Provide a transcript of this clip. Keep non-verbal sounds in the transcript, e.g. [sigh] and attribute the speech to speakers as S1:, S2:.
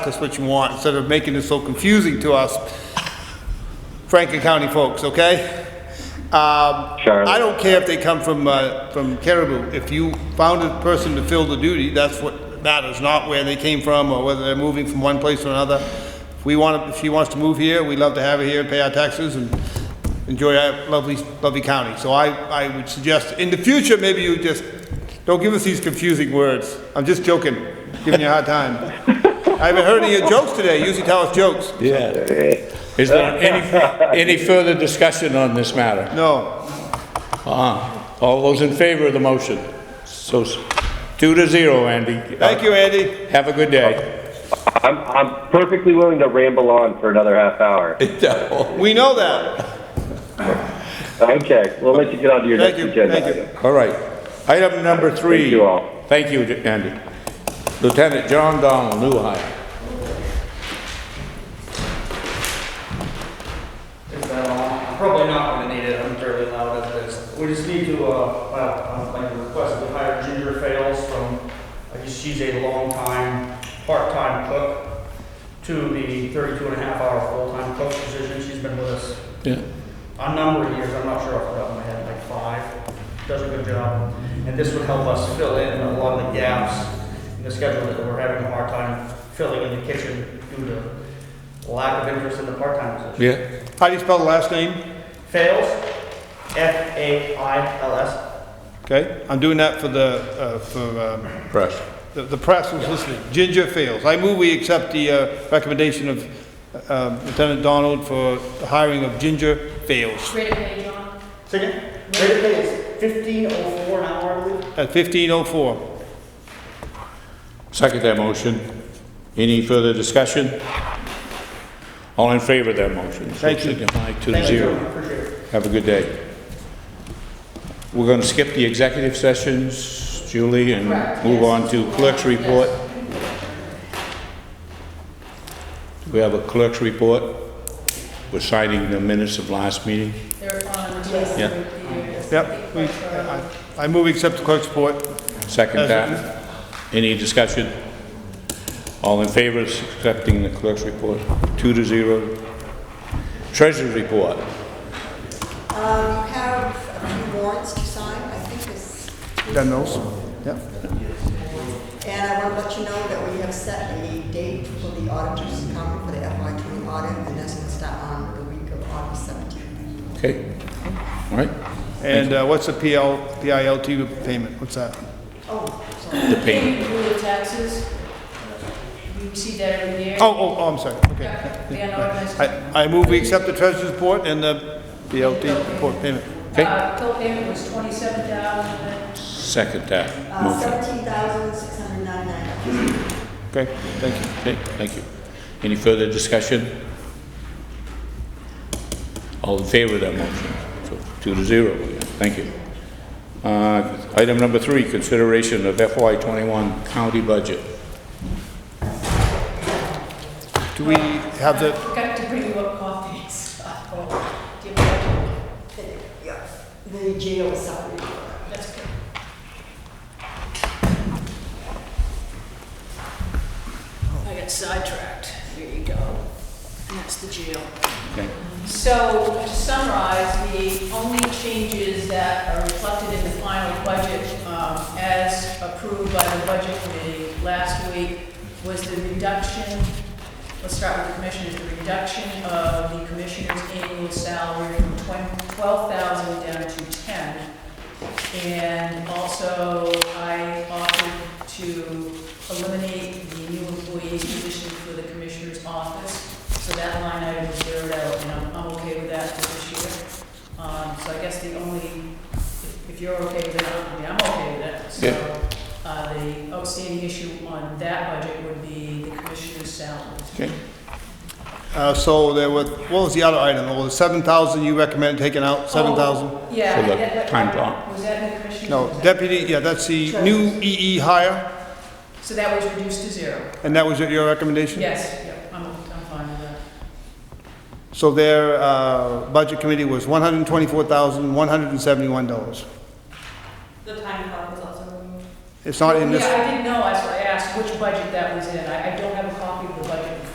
S1: That's what you want, instead of making it so confusing to us Franklin County folks, okay? Um,
S2: Charlotte.
S1: I don't care if they come from, uh, from Caribou. If you found a person to fill the duty, that's what matters, not where they came from or whether they're moving from one place to another. If we want, if she wants to move here, we'd love to have her here and pay our taxes and enjoy our lovely, lovely county. So I, I would suggest, in the future, maybe you just, don't give us these confusing words. I'm just joking, giving you a hard time. I haven't heard any of your jokes today. You Usually tell us jokes.
S3: Yeah.
S2: Eh,
S3: Is there any, any further discussion on this matter?
S1: No.
S3: Uh-uh. All those in favor of the motion? So, s- two to zero, Andy.
S1: Thank you, Andy.
S3: Have a good
S2: [laughs]
S3: day.
S2: I'm, I'm perfectly willing to ramble on for another half hour.
S1: We know that.
S2: Okay, we'll let you get on to your
S1: Thank
S2: next
S1: you,
S2: agenda.
S1: thank you.
S2: item.
S3: All right. Item number three.
S2: Thank you all.
S3: Thank you, Andy. Lieutenant John Donald, new hire.
S4: Is that all? Probably not gonna need it, I'm fairly loud as it is. We just need to, uh, uh, I'd like to request that we hire Ginger Fails from, I guess she's a longtime, part-time cook to the 32 and a half hour full-time cook position, she's been with us
S3: Yeah.
S4: a number of years, I'm not sure off the top of my head, like five, does a good job. And this would help us fill in a lot of the gaps in the schedule that we're having a hard time filling in the kitchen due to lack of interest in the part-time position.
S3: Yeah.
S1: How do you spell the last name?
S4: Fails. F A I L S.
S1: Okay, I'm doing that for the, uh, for, um,
S3: Fresh.
S1: the- the press who's listening. Ginger Fails. I move we accept the uh, recommendation of um, Lieutenant Donald for the hiring of Ginger Fails
S5: Ready, ready, John?
S4: Second. Rate of pay is fifteen oh four an hour, I believe.
S1: at 1504.
S3: Second that motion. Any further discussion? All in favor of that motion? So
S1: Thank you.
S3: signify Two to
S4: Thank you,
S3: zero.
S4: gentlemen. Appreciate it.
S3: Have a good day. We're going to skip the executive sessions, Julie, and
S5: Correct,
S3: move
S5: yes.
S3: on to clerk's report. Do we have a clerk's report? We're signing the minutes of last meeting.
S5: They're on. Yes.
S3: Yeah.
S1: Yep. we- I- I move we accept the clerk's report.
S3: Second
S1: As
S3: that. Any discussion? All in favor of accepting the clerk's report? Two to zero. Treasurer's report.
S6: Um, you have a few warrants to sign, I think is,
S1: Done those? Yep.
S6: and I want to let you know that we have set a date for the auditors to come for the FY twenty audit, and that's going to start on the week of August seventeenth.
S3: Okay. All right.
S1: And uh, what's the PL, PILT payment? What's that?
S6: Oh,
S3: The
S6: sorry.
S3: payment.
S5: Rule of taxes. You see that every year.
S1: Oh, oh, oh, I'm sorry. Okay.
S5: Yeah, The unorganized.
S1: I I move we accept the treasurer's report and the PLT report payment.
S3: Okay.
S5: Uh, co-payment was twenty-seven thousand.
S3: Second that.
S6: Uh,
S3: Motion.
S6: seventeen thousand, six hundred ninety-nine.
S1: Okay, thank you.
S3: Okay, thank you. Any further discussion? All in favor of that motion? So Two to zero, thank you. Uh, Item number three, consideration of FY '21 county budget.
S1: Do we have the,
S5: Forgot to bring you up coffee. [laughs] so I'll give that-
S6: Yeah, the jail salary.
S5: That's good. I got sidetracked. There you go. And That's the jail.
S3: Okay.
S5: So to summarize, the only changes that are reflected in the final budget um, as approved by the budget committee last week was the reduction, let's start with the commissioners, the reduction of the commissioner's annual salary from 12,000 down to 10. And also, I offered to eliminate the new employees position for the commissioner's office. So that line item is zeroed out, and I'm, I'm okay with that for this year. Um, so I guess the only, if- if you're okay with it, I mean, I'm okay with it.
S3: Yeah.
S5: So, uh, the outstanding issue on that budget would be the commissioner's salary.
S3: Okay,
S1: uh, so there were, what was the other item? There was 7,000 you recommend taking out, 7,000?
S5: Oh, Yeah.
S3: For the
S5: that- that-
S3: time clock.
S5: Was that in the commissioner's?
S1: No, deputy, yeah, that's the new EE hire,
S5: So that was reduced to zero?
S1: and that was your recommendation?
S5: Yes, yep, I'm, I'm fine with that.
S1: So their uh, budget committee was $124,171.
S5: The time clock was also removed.
S1: It's not in this,
S5: Yeah, I didn't know, that's what I asked, which budget